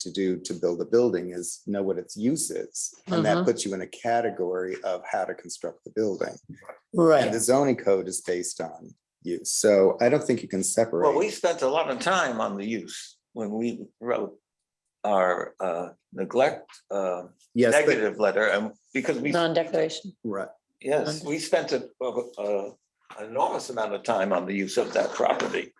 to do to build a building is know what its use is. And Uh-huh. that puts you in a category of how to construct the building. And Right. the zoning code is based on use. So I don't think you can separate. Well, we spent a lot of time on the use when we wrote our uh, neglect uh, Yes, but, negative letter and because we, Non-declaration. right. yes, we spent a- a- a enormous amount of time on the use of that property.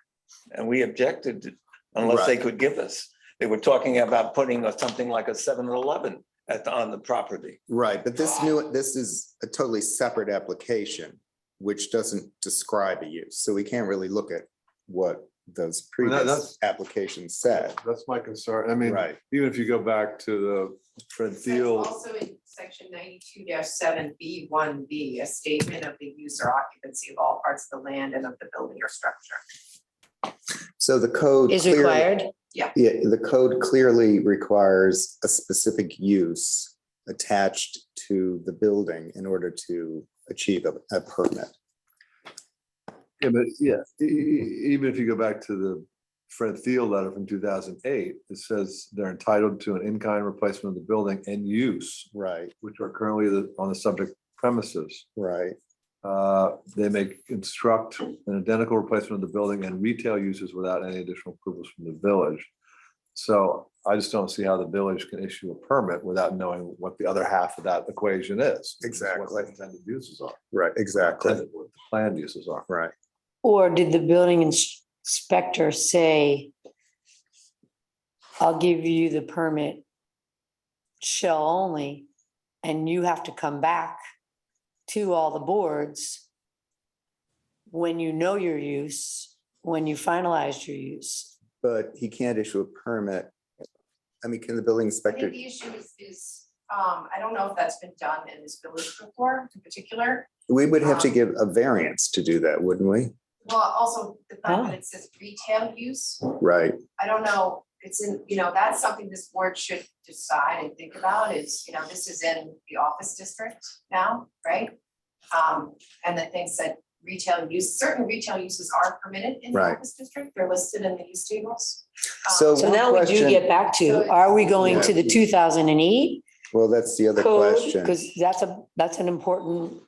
And we objected unless they could give us. They were talking about putting a- something like a 7-Eleven at, on the property. Right, but this new, this is a totally separate application, which doesn't describe a use, so we can't really look at what those Well, that- previous that's- applications said. That's my concern. Mm. I mean, Right, even if you go back to the Fred That's Thiel, Also in section ninety-two seven B one B, a statement of the use or occupancy of all parts of the land and of the building or structure. so the code. Is clearly- required. Yeah, the code clearly requires a specific use attached to the building in order to achieve a, a permit. yeah, but yeah, e- e- even if you go back to the Fred Thiel letter from two thousand eight, it says they're entitled to an in-kind replacement of the building and use, Right, which are currently the- on the subject premises. right, Uh, They may construct an identical replacement of the building and retail uses without any additional approvals from the village. So I just don't see how the village can issue a permit without knowing what the other half of that equation is. which is what the Exactly. Intended uses are, right, exactly, intended- what the planned uses are. right. Or did the building inspector say, I'll give you the permit shell only, and you have to come back to all the boards when you know your use, when you finalize your use? But he can't issue a permit. I mean, can the building I inspector? think the issue is, is, um, I don't know if that's been done in this village before in particular. We would have to Um, give a variance to do that, wouldn't we? Well, also the fact that it says retail use, Right, I don't know, it's in, you know, that's something this board should decide and think about is, you know, this is in the office district now, right? Um, and the things that retail use, certain retail uses are permitted in the Right. office district, they're listed in the use tables. Um, So- So one now we do question- get back to, are we going to the Yeah. two thousand and eight well, that's the other code? question. Because that's a, that's an important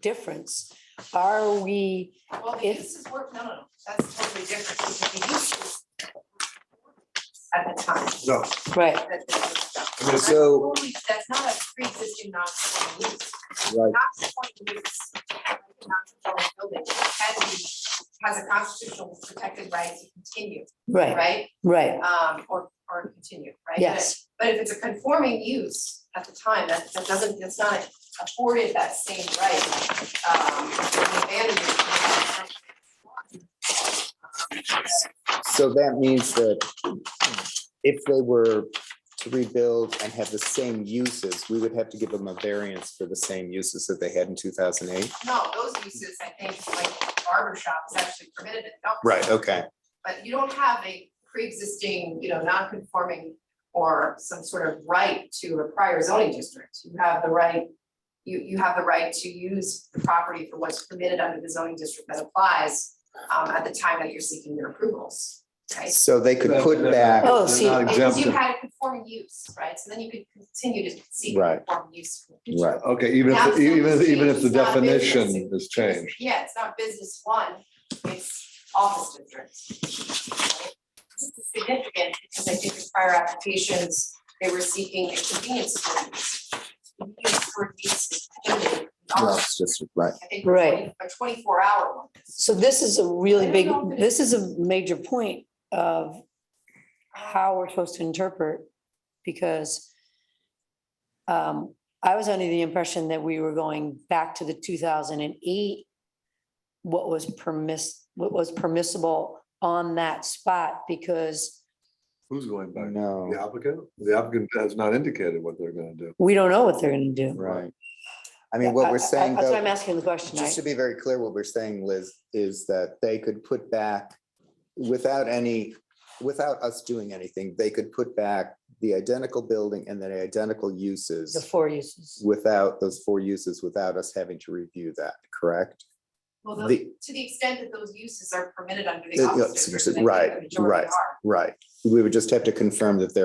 difference. Are we? Well, the if- uses were, no, no, no, that's totally different, because the uses at the time. No, Right, that this was done. That's So, totally- That's not a pre-existing non-conforming use. right, non-conforming use, like a non-conforming building, can be, has a constitutional protected right to continue, right, right? right, Um, or, or continue, right? But- yes, But if it's a conforming use at the time, that, that doesn't, it's not afforded that same right, um, the abandonment. so that means that if they were to rebuild and have the same uses, we would have to give them a variance for the same uses that they had in two thousand eight? No, those uses, I think, like barber shop is actually permitted in the office. Okay, But you don't have a pre-existing, you know, non-conforming or some sort of right to a prior zoning district. You have the right, you, you have the right to use the property for what's permitted under the zoning district that applies um, at the time that you're seeking your approvals, right? so they could put back, Oh, They're see, not Because you exempted. had a conforming use, right? So then you could continue to seek Right. conforming use. in the future. right, Okay, even if, even, Absolutely if- even if changed. the It's not business. definition is changed. Yeah, it's not business one, it's office district. This is significant because I think in prior applications, they were seeking a convenience store use. Convenience store use is limited. no, it's just, right, I think Right. a twenty-four hour one. so this is a really I big, don't know if it this is a major point of how we're supposed to interpret, because um, I was under the impression that we were going back to the two thousand and eight, what was permiss, what was permissible on that spot, because Who's going back? The no, applicant? The applicant has not indicated what they're gonna do. we don't know what they're gonna do. right. I mean, what I- I- we're saying That's why though, I'm asking the question, just right? to be very clear, what we're saying, Liz, is that they could put back without any, without us doing anything, they could put back the identical building and the identical The uses four uses. without those four uses, without us having to review that, correct? Well, the- The, to the extent that those uses are permitted under the The- office yes, district, and I think right, the majority right. are. right, we would just have to confirm that they're